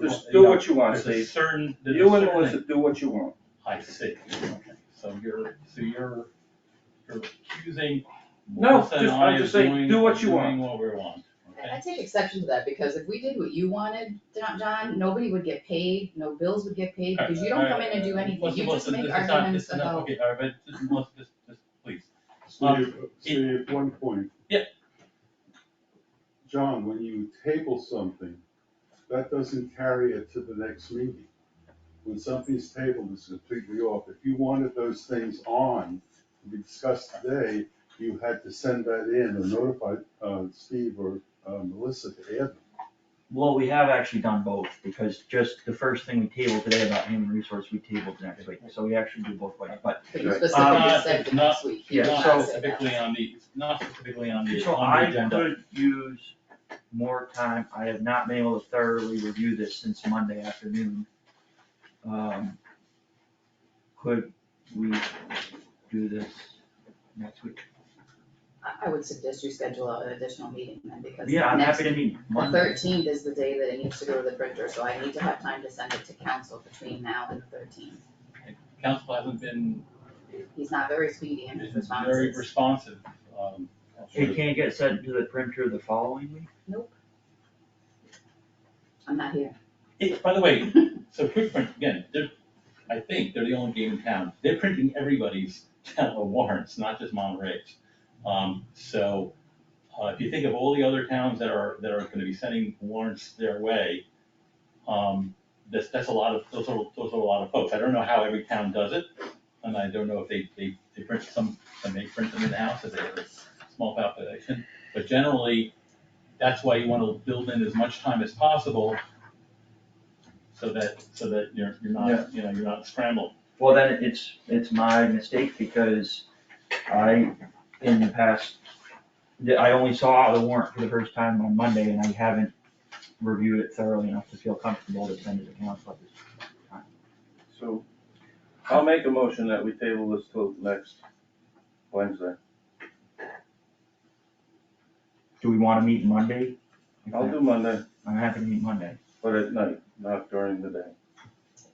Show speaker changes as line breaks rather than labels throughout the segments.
Just do what you want,
There's a
Steve.
certain, there's a
You and
certain-
Melissa, do what you want.
I see, okay, so you're, so you're, you're accusing
No,
Melissa and
just-
I
I'm
of
just saying,
doing,
do what you
doing what we want,
I I
okay?
take exception to that, because if we did what you wanted, John, John, nobody would get paid, no bills would get paid, because you don't come in and do anything,
Melissa,
you just
Melissa,
make
this is not-
arguments
this is not-
about.
Okay, all right, but just, Melissa, just, just, please,
Steve, Steve, one point.
Yeah.
John, when you table something, that doesn't carry it to the next meeting. When something's tabled, it's completely off. If you wanted those things on to be discussed today, you had to send that in or notify, uh, Steve or, uh, Melissa to add them.
Well, we have actually done both, because just the first thing we tabled today about human resource, we tabled next week, so we actually do both ways, but.
But you
Right.
specifically
Uh,
said the
not-
next week. you
yeah,
did not
so-
say that.
Specifically on the, not specifically on the,
So
on the
I
agenda.
could use more time, I have not been able to thoroughly review this since Monday afternoon. Um, Could we do this next week?
I, I would suggest you schedule an additional meeting then, because
Yeah, I'm
next, the
happy to meet Monday.
thirteenth is the day that it needs to go to the printer, so I need to have time to send it to council between now and the thirteenth.
Council hasn't been
He's not very speedy in his responses.
very responsive, um.
It can't get sent to the printer the following week?
I'm not here.
It, by the way, so quick print, again, they're, I think they're the only game in town, they're printing everybody's town warrants, not just Monterey's. Um, so, uh, if you think of all the other towns that are, that are gonna be sending warrants their way, um, that's, that's a lot of, those are, those are a lot of folks, I don't know how every town does it, and I don't know if they, they, they print some, some may print them in-house if they have a small population, but generally, that's why you wanna build in as much time as possible so that, so that you're, you're not, you know, you're not scrambled.
Well, then it's, it's my mistake because I, in the past, that I only saw the warrant for the first time on Monday and I haven't reviewed it thoroughly enough to feel comfortable to send it to council at this time.
So I'll make a motion that we table this till next Wednesday.
Do we wanna meet Monday? If
I'll
that-
do Monday,
I'm happy to meet Monday.
but at night, not during the day.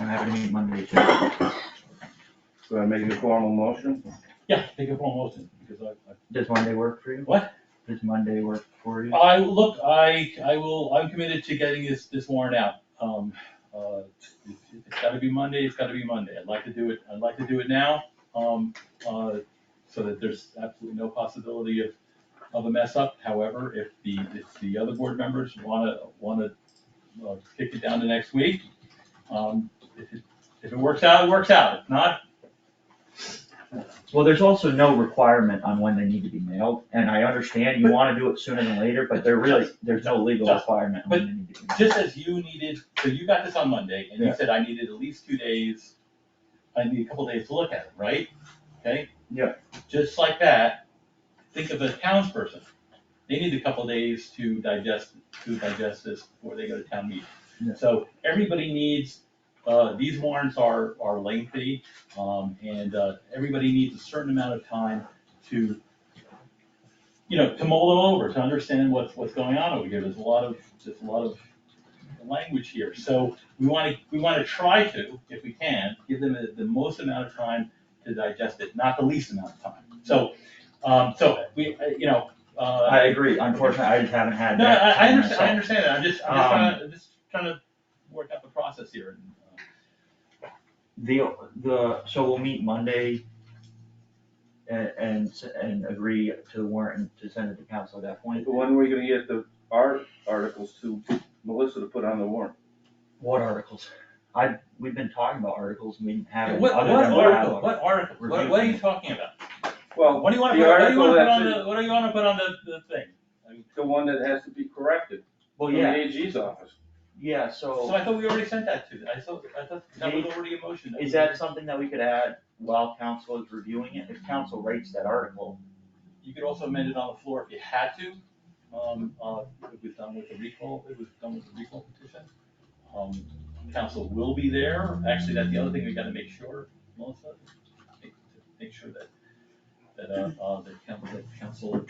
I'm happy to meet Monday too.
So I make a formal motion?
Yeah, take a formal motion, because I,
Does Monday work for you?
What?
Does Monday work for you?
I, I, look, I, I will, I'm committed to getting this, this warrant out. Um, uh, it's, it's gotta be Monday, it's gotta be Monday, I'd like to do it, I'd like to do it now, um, uh, so that there's absolutely no possibility of, of a mess up. However, if the, if the other board members wanna, wanna, uh, kick it down to next week, um, if it, if it works out, it works out, if not,
Well, there's also no requirement on when they need to be mailed, and I understand you wanna do it sooner than later, but there really, there's no legal
Just-
requirement on when they need to be mailed.
just as you needed, so you got this on Monday, and you
Yeah.
said I needed at least two days, I need a couple days to look at it, right? Okay?
Yeah.
Just like that, think of a townsperson, they need a couple days to digest, to digest this before they go to town
Yeah.
meeting. So everybody needs, uh, these warrants are, are lengthy, um, and, uh, everybody needs a certain amount of time to, you know, to mull them over, to understand what's, what's going on over here, there's a lot of, there's a lot of language here. So we want to, we want to try to, if we can, give them the- the most amount of time to digest it, not the least amount of time. So, um, so we, uh, you know, uh,
I agree, unfortunately, I just haven't had
no,
that.
I, I
time
understand, I
myself.
understand that. I'm just, I'm just trying,
Um,
to- just trying to work out the process here and, uh,
The, the, so we'll meet Monday and, and, s- and agree to the warrant and to send it to council at that point.
When are we gonna get the art articles to Melissa to put on the warrant?
What articles? I, we've been talking about articles, we didn't have.
Yeah,
any
What,
other
what
than
article,
bylaw.
what article, what, what are you talking about?
Well,
What do you wanna
the
put, what do you
article
wanna put on
that's-
the, what do you wanna put on the, the thing? I mean,
the one that has to be corrected
Well,
from
yeah,
the AG's office.
yeah, so
So I thought we already sent that to, I thought, I thought that was already a motion.
is that something that we could add while council is reviewing it? If council rates that article,
You could also amend it on the floor if you had to. Um, uh, it was done with the recall, it was done with the recall petition. Um, council will be there. Actually, that's the other thing we gotta make sure, Melissa, make, make sure that, that, uh, uh, that council, that council